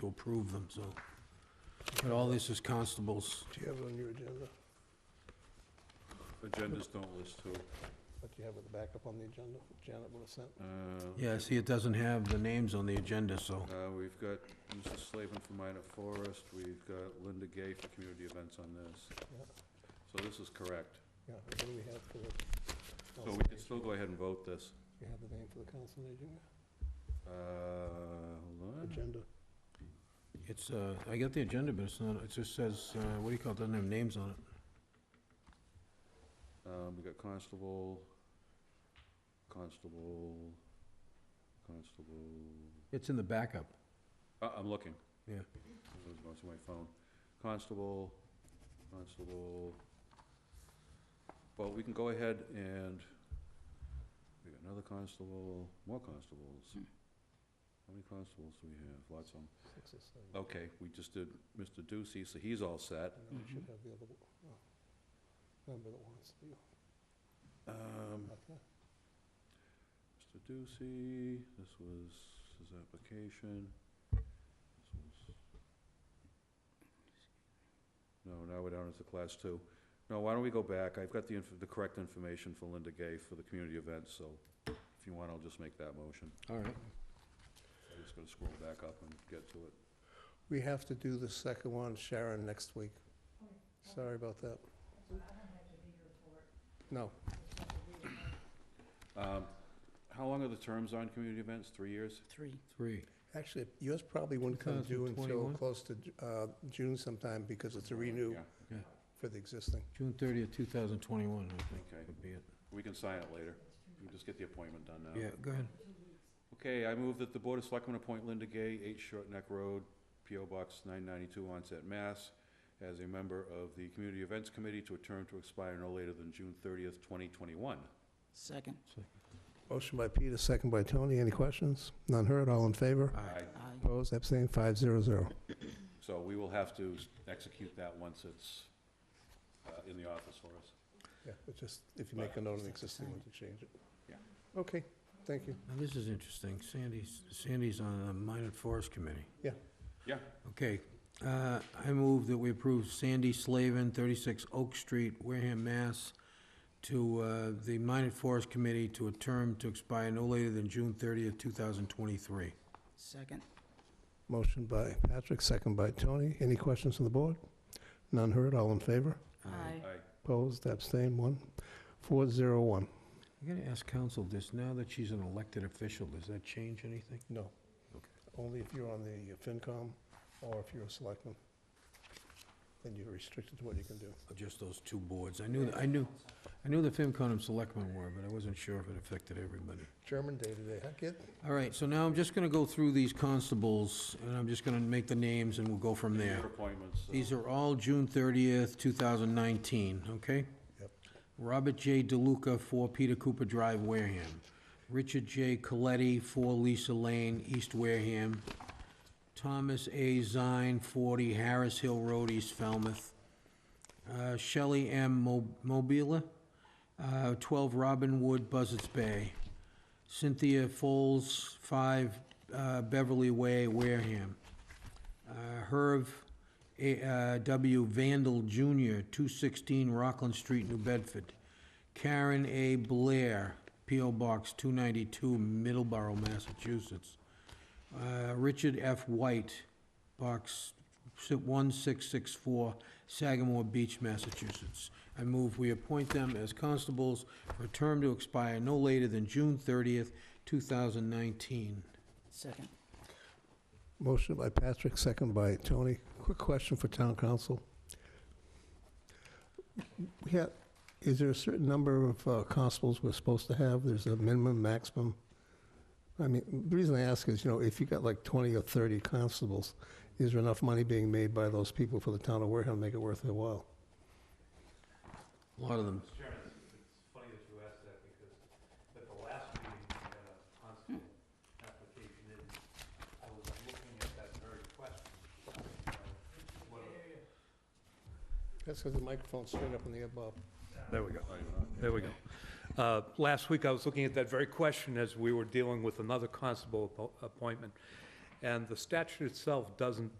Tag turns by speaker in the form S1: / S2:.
S1: to approve them, so. But all this is constables.
S2: Do you have it on your agenda?
S3: Agendas don't list who.
S2: What do you have at the backup on the agenda? Janet would have sent.
S3: Uh,
S1: Yeah, see, it doesn't have the names on the agenda, so.
S3: uh, We've got Mr. Slavin for minor forest, we've got Linda Gay for community events on this.
S2: Yeah.
S3: So this is correct.
S2: Yeah, what do we have for the?
S3: So
S2: council
S3: we can
S2: agent?
S3: still go ahead and vote this.
S2: You have the name for the council agent?
S3: Uh, hold on.
S2: Agenda.
S1: It's, uh, I got the agenda, but it's not, it just says, uh, what do you call it, doesn't have names on it.
S3: Um, we got constable, constable, constable,
S1: It's in the backup.
S3: uh, I'm looking.
S1: Yeah.
S3: I was going to my phone. Constable, constable. Well, we can go ahead and, we got another constable, more constables. How many constables do we have? Lots of them.
S2: Six or seven.
S3: Okay, we just did Mr. Ducey, so he's all set.
S2: And then we should have the other, one. oh, member that wants to be
S3: Um,
S2: back there.
S3: Mr. Ducey, this was his application. This was. No, now we're down to class two. No, why don't we go back? I've got the, inf- the correct information for Linda Gay for the community event, so if you want, I'll just make that motion.
S1: All right.
S3: I'm just gonna scroll back up and get to it.
S2: We have to do the second one, Sharon, next week. Sorry about that. No,
S3: Um, How long are the terms on community events? Three years?
S4: Three.
S1: Three.
S2: actually, yours probably wouldn't come due until
S1: 2021?
S2: close to uh, June sometime because it's a renew
S3: Yeah,
S2: for the existing.
S1: June thirtieth, two thousand twenty-one, I think
S3: okay.
S1: would be it.
S3: We can sign it later. We can just get the appointment done now.
S1: Yeah, go ahead.
S3: Okay, I move that the Board of Selectmen appoint Linda Gay, 8 Short Neck Road, P.O. Box 992, Onset, Mass, as a member of the Community Events Committee to a term to expire no later than June 30th, 2021.
S4: Second.
S2: Motion by Peter, second by Tony. Any questions? None heard, all in favor?
S3: Aye.
S4: Aye.
S2: Opposed, abstained, five zero zero.
S3: So we will have to execute that once it's uh, in the office for us.
S2: Yeah, but just, if you make a note of the existing one, to change it.
S3: Yeah.
S2: Okay, thank you.
S1: Now, this is interesting. Sandy's, Sandy's on the Minot Forest Committee.
S3: Yeah,
S1: Okay, uh, I move that we approve Sandy Slavin, 36 Oak Street, Wareham, Mass, to uh, the Minot Forest Committee to a term to expire no later than June 30th, 2023.
S4: Second.
S2: Motion by Patrick, second by Tony. Any questions from the board? None heard, all in favor?
S1: Uh,
S4: Aye.
S3: aye.
S2: Opposed, abstained, one. Four zero one.
S1: I gotta ask council this, now that she's an elected official, does that change anything?
S2: No.
S1: Okay.
S2: Only if you're on the FinCom or if you're a selectman. Then you're restricted to what you can do.
S1: Or Just those two boards? I knew, I knew, I knew the FinCon and Selectmen were, but I wasn't sure if it affected everybody.
S2: German day today, huh, kid?
S1: All right, so now I'm just gonna go through these constables, and I'm just gonna make the names, and we'll go from there.
S3: Your appointments. uh, so-
S1: These are all June 30th, 2019, okay?
S2: Yep.
S1: Robert J. DeLuca, 4 Peter Cooper Drive, Wareham. Richard J. Coletti, 4 Lisa Lane, East Wareham. Thomas A. Zine, 40 Harris Hill Road, East Falmouth. Uh, Shelley M. Mo- Mobila, uh, 12 Robin Wood, Buzzards Bay. Cynthia Foles, 5 uh, Beverly Way, Wareham. Uh, Herb A- uh, W. Vandal Jr., 216 Rockland Street, New Bedford. Karen A. Blair, P.O. Box 292, Middleborough, Massachusetts. Uh, Richard F. White, Box 1664, Sagamore Beach, Massachusetts. I move we appoint them as constables for a term to expire no later than June 30th, 2019.
S4: Second.
S2: Motion by Patrick, second by Tony. Quick question for town council. We have, is there a certain number of uh, constables we're supposed to have? There's a minimum, maximum? I mean, the reason I ask is, you know, if you got like 20 or 30 constables, is there enough money being made by those people for the town of Wareham to make it worth their while?
S1: A lot of them
S5: Mr. Chairman, it's it's funny that you asked that because at the last meeting, we had a constable application in. I was looking at that very question. you know, what a-
S2: That's because the microphone's straight up in the air, Bob.
S5: There we go. There we go. Uh, Last week, I was looking at that very question as we were dealing with another constable appo- appointment.
S6: And the statute itself doesn't